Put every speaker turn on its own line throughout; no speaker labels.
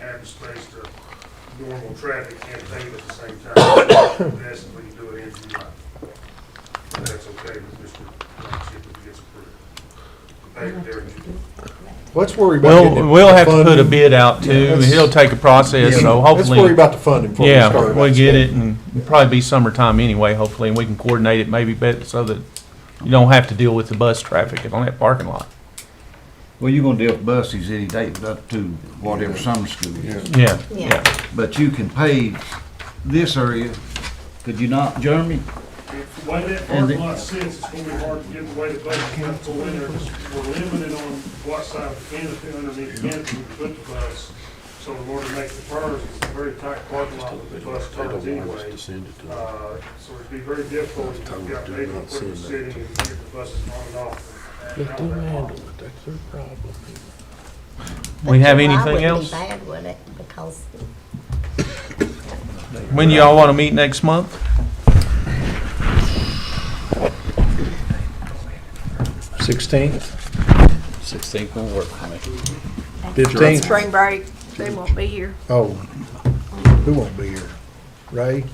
back the space to normal traffic campaign at the same time. That's when you do it in July. And that's okay with Mr. Knox if it gets approved. Pay it there in July.
Let's worry about
We'll,
getting it-
we'll have to put a
funding.
bid out too.
that's-
It'll take a process,
Yeah,
so
Let's worry
hopefully,
about the funding before we start.
yeah,
about
we'll get
stuff.
it and it'll probably be summertime anyway, hopefully, and we can coordinate it maybe better so that you don't have to deal with the bus traffic on that parking lot.
Well, you're gonna deal with buses any day up to whatever summer school is,
Yeah,
Yeah.
yeah.
but you can pave this area, could you not, Jeremy?
If the way that parking lot sits, it's gonna be hard to get the way the bus comes to winter, 'cause we're limited on what side of the canopy, underneath the canopy we put the bus. So in order to make the turns, it's a very tight parking lot with the bus turns anyway. Uh, So it'd be very difficult if you've got major equipment sitting and get the buses on and off. and out of that lot.
We have
July
anything
wouldn't be
else?
bad, would it? Because
When do y'all want to meet next month?
Sixteenth,
Sixteenth will work for me.
fifteenth,
Spring break, they won't be here.
oh, who won't be here? Ray,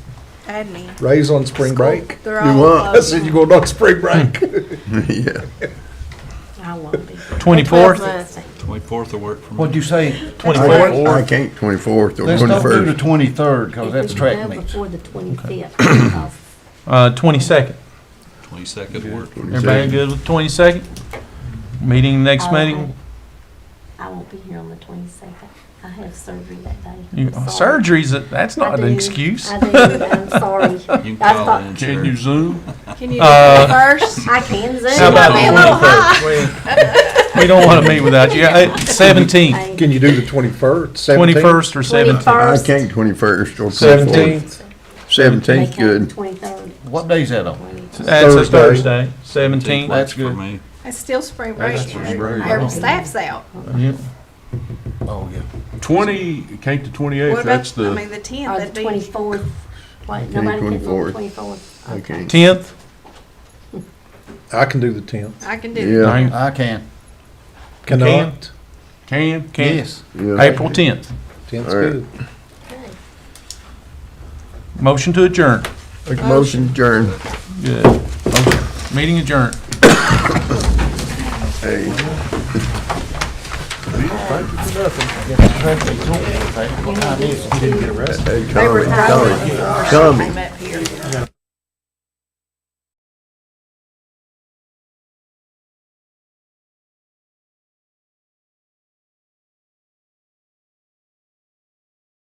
Add me.
Ray's on spring break.
They're all closed.
I said you going on spring break.
Hmm.
I won't be.
Twenty-fourth?
Plus,
Twenty-fourth will work for me.
What'd you say?
Twenty-fourth.
I can't twenty-fourth or
Let's don't do the
twenty-first.
twenty-third, cause Oh, that's
if we go
track meets.
Before the twenty-fifth, because
Uh, twenty-second.
Twenty-second will work.
Everybody good with twenty-second? Meeting next
Oh,
meeting?
I won't be here on the twenty-second. I have surgery that day.
You-
I'm sorry.
Surgeries, that's
I
not
do.
an excuse.
I do, I'm sorry.
You can
I
call
thought-
in. Can you zoom?
Can you do
Uh,
it first?
I can zoom.
How about
might be a little
the 23rd? We don't want to meet without you. Uh, Seventeenth,
Can you do the twenty-first, seventeenth?
twenty-first or seventeenth.
I
Twenty-first.
can't twenty-first or twenty-fourth.
Seventeenth,
Seventeenth, good.
Twenty-third.
What day's that on?
That's a
Thursday.
Thursday, seventeenth.
That's
That's
good.
good for me.
It's still spring break.
spring break.
Our staff's out.
Oh, yeah.
Twenty, came to
What
twenty-eighth, that's
about, I
the,
mean, the
Or
tenth,
Uh, the
that'd be,
twenty-fourth. What,
Okay,
nobody can do the
24th.
twenty-fourth?
Okay.
Tenth,
I can do the tenth.
I can do that.
Yeah,
April
I can,
Cannot,
can,
Can't.
yes.
yeah.
tenth.
tenth's
All right.
good.
Okay.
Motion to adjourn.
Make a motion adjourned.
Good. Okay. Meeting adjourned.
Hey.
They were tired
Tommy.
of up here.